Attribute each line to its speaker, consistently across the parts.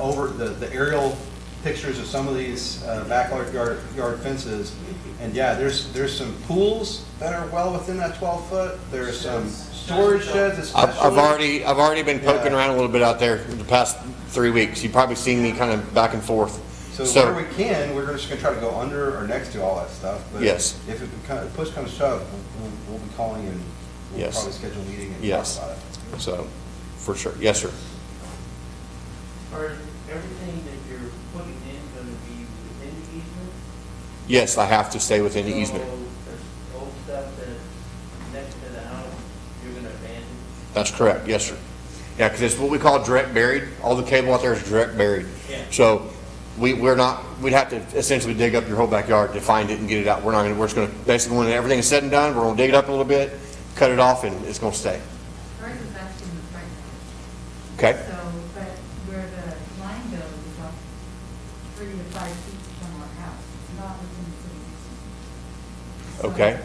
Speaker 1: over, the, the aerial pictures of some of these uh, backyard yard yard fences. And yeah, there's, there's some pools that are well within that twelve foot, there's some storage sheds
Speaker 2: I've,
Speaker 1: especially.
Speaker 2: I've already, I've already been poking
Speaker 1: Yeah.
Speaker 2: around a little bit out there the past three weeks. You've probably seen me kind of back and forth.
Speaker 1: So where
Speaker 2: So,
Speaker 1: we can, we're just gonna try to go under or next to all that stuff. but
Speaker 2: Yes.
Speaker 1: If it becomes, push comes to shove, we'll, we'll be calling and we'll
Speaker 2: Yes.
Speaker 1: probably schedule a meeting and talk
Speaker 2: Yes.
Speaker 1: about it.
Speaker 2: so, for sure. Yes, sir.
Speaker 3: Are everything that you're putting in gonna be within the easement?
Speaker 2: Yes, I have to stay within the easement.
Speaker 3: So, there's old stuff that's next to the house, you're gonna abandon?
Speaker 2: That's correct, yes, sir. Yeah, because it's what we call direct buried. All the cable out there is direct buried.
Speaker 3: Yeah.
Speaker 2: So we, we're not, we'd have to essentially dig up your whole backyard to find it and get it out. We're not gonna, we're just gonna, basically when everything's said and done, we're gonna dig it up a little bit, cut it off, and it's gonna stay.
Speaker 4: Ours is actually in the front yard.
Speaker 2: Okay?
Speaker 4: So, but where the line goes is up three to five feet from our house, not within the city. So-
Speaker 2: Okay.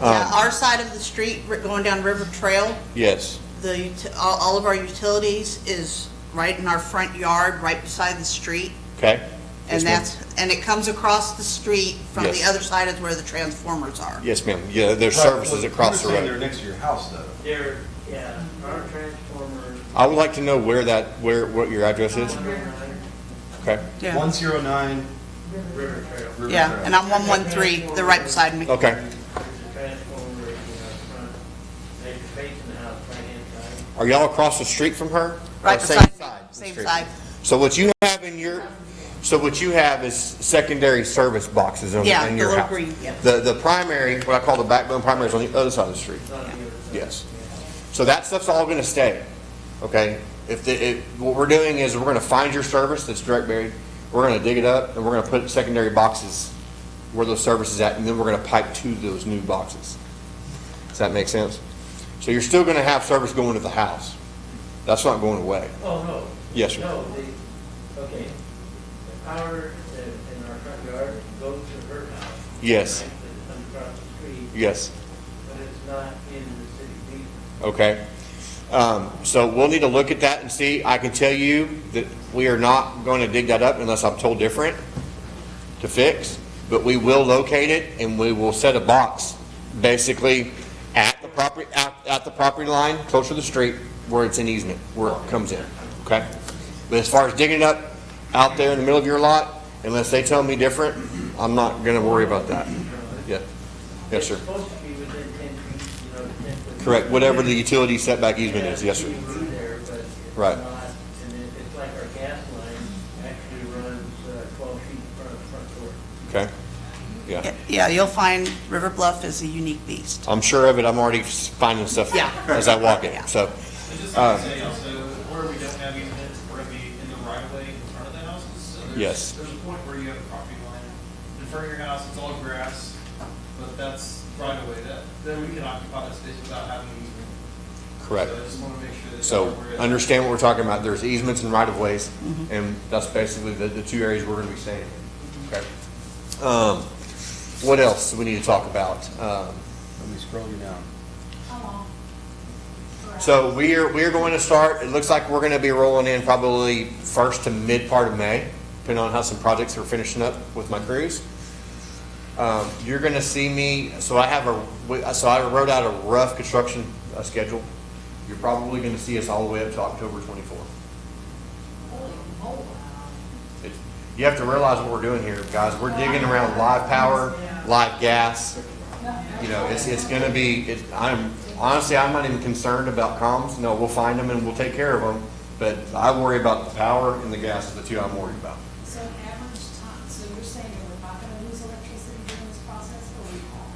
Speaker 5: Yeah,
Speaker 2: Um,
Speaker 5: our side of the street, ri- going down River Trail,
Speaker 2: Yes,
Speaker 5: the, ut- all all of our utilities is right in our front yard, right beside the street.
Speaker 2: okay. Yes,
Speaker 5: And
Speaker 2: ma'am.
Speaker 5: that's, and it comes across the street from the
Speaker 2: Yes.
Speaker 5: other side is where the transformers are.
Speaker 2: Yes, ma'am. Yeah, there's
Speaker 1: Right,
Speaker 2: services
Speaker 1: well,
Speaker 2: across the
Speaker 1: you're saying They're
Speaker 2: road.
Speaker 1: next to your house though.
Speaker 3: There, yeah, our transformers.
Speaker 2: I would like to know where that, where, what your address is.
Speaker 4: Um, River
Speaker 2: Okay,
Speaker 1: One zero nine
Speaker 3: River Trail.
Speaker 1: River
Speaker 5: Yeah, and
Speaker 1: Drive.
Speaker 5: I'm 113, they're right beside me.
Speaker 2: okay.
Speaker 3: Transformer is in our front, they're facing the house right inside.
Speaker 2: Are y'all across the street from her?
Speaker 5: Right
Speaker 2: Or same
Speaker 5: beside me,
Speaker 2: side of the
Speaker 5: same
Speaker 2: street?
Speaker 5: side.
Speaker 2: So what you have in your, so what you have is secondary service boxes on,
Speaker 5: Yeah,
Speaker 2: in
Speaker 5: the
Speaker 2: your
Speaker 5: little
Speaker 2: house.
Speaker 5: green, yeah.
Speaker 2: The, the primary, what I call the backbone primary is on the other side of the street.
Speaker 3: It's on the other side.
Speaker 2: Yes. So that stuff's all gonna stay, okay? If, the- if, what we're doing is we're gonna find your service that's direct buried, we're gonna dig it up, and we're gonna put secondary boxes where those services at, and then we're gonna pipe to those new boxes. Does that make sense? So you're still gonna have service going to the house. That's not going away.
Speaker 3: Oh, no.
Speaker 2: Yes, sir.
Speaker 3: No, the, okay, the power that in our front yard goes to her house.
Speaker 2: Yes.
Speaker 3: right, that comes across the street,
Speaker 2: Yes,
Speaker 3: but it's not in the city easement.
Speaker 2: okay? Um, so we'll need to look at that and see. I can tell you that we are not gonna dig that up unless I'm told different to fix, but we will locate it and we will set a box, basically, at the property, at, at the property line, closer to the street, where it's in easement, where it comes in, okay? But as far as digging it up out there in the middle of your lot, unless they tell me different, I'm not gonna worry about that. Yeah, yes, sir.
Speaker 3: It's supposed to be within ten feet, you know, ten foot.
Speaker 2: Correct, whatever the utility setback easement is, yes, sir.
Speaker 3: Yeah, it's even there, but it's
Speaker 2: Right.
Speaker 3: not, And it- it's like our gas line actually runs uh, twelve feet in front of the front door.
Speaker 2: Okay, yeah.
Speaker 5: Yeah, you'll find River Bluff is a unique beast.
Speaker 2: I'm sure of it, I'm already finding stuff
Speaker 5: Yeah.
Speaker 2: as I walk in,
Speaker 5: Yeah.
Speaker 2: so,
Speaker 6: It's
Speaker 2: Uh,
Speaker 6: just like I say, also, where we don't have easements, we're gonna be in the right of way in front of the houses. So there's-
Speaker 2: Yes.
Speaker 6: There's a point where you have a property line, in front of your house, it's all grass, but that's right of way, that, then we can occupy that space without having an easement.
Speaker 2: correct.
Speaker 6: So I just wanna make sure that.
Speaker 2: So,
Speaker 6: we're in-
Speaker 2: understand what we're talking about, there's easements and right-of-ways,
Speaker 5: Mm-hmm.
Speaker 2: and that's basically the, the two areas we're gonna be staying in. Okay.
Speaker 5: Mm-hmm.
Speaker 2: Um, what else do we need to talk about?
Speaker 1: Let
Speaker 2: Um,
Speaker 1: me scroll you down.
Speaker 4: How long?
Speaker 2: So we are, we are going to start, it looks like we're gonna be rolling in probably first to mid part of May, depending on how some projects are finishing up with my crews. Um, you're gonna see me, so I have a, we- so I wrote out a rough construction uh, schedule. You're probably gonna see us all the way up to October twenty-fourth.
Speaker 4: Holy moly.
Speaker 2: It- You have to realize what we're doing here, guys. We're digging around live power, live gas. You know, it's, it's gonna be, it, I'm, honestly, I'm not even concerned about comms. No, we'll find them and we'll take care of them. But I worry about the power and the gas is the two I'm worried about.
Speaker 7: So average time, so you're saying that we're not gonna lose electricity during this process, but we are?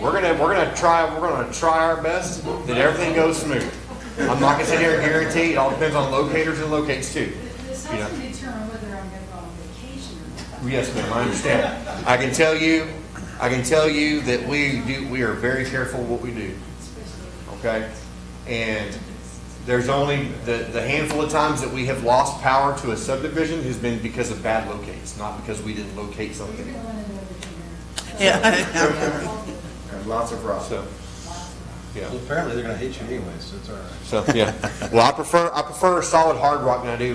Speaker 2: We're gonna, we're gonna try, we're gonna try our best that everything goes smooth. I'm not gonna sit here and guarantee, it all depends on locators and locates too.
Speaker 7: This
Speaker 2: You know.
Speaker 7: has to determine whether I'm gonna go on vacation or not.
Speaker 2: Yes, ma'am, I understand. I can tell you, I can tell you that we do, we are very careful what we do. Okay? And there's only, the, the handful of times that we have lost power to a subdivision has been because of bad locates, not because we didn't locate
Speaker 7: You're
Speaker 2: something.
Speaker 7: going into everything.
Speaker 5: Yeah.
Speaker 2: Lots of rocks. So, yeah.
Speaker 1: Well, apparently they're gonna hate you anyway, so it's all right.
Speaker 2: So, yeah. Well, I prefer, I prefer solid hard rock than I do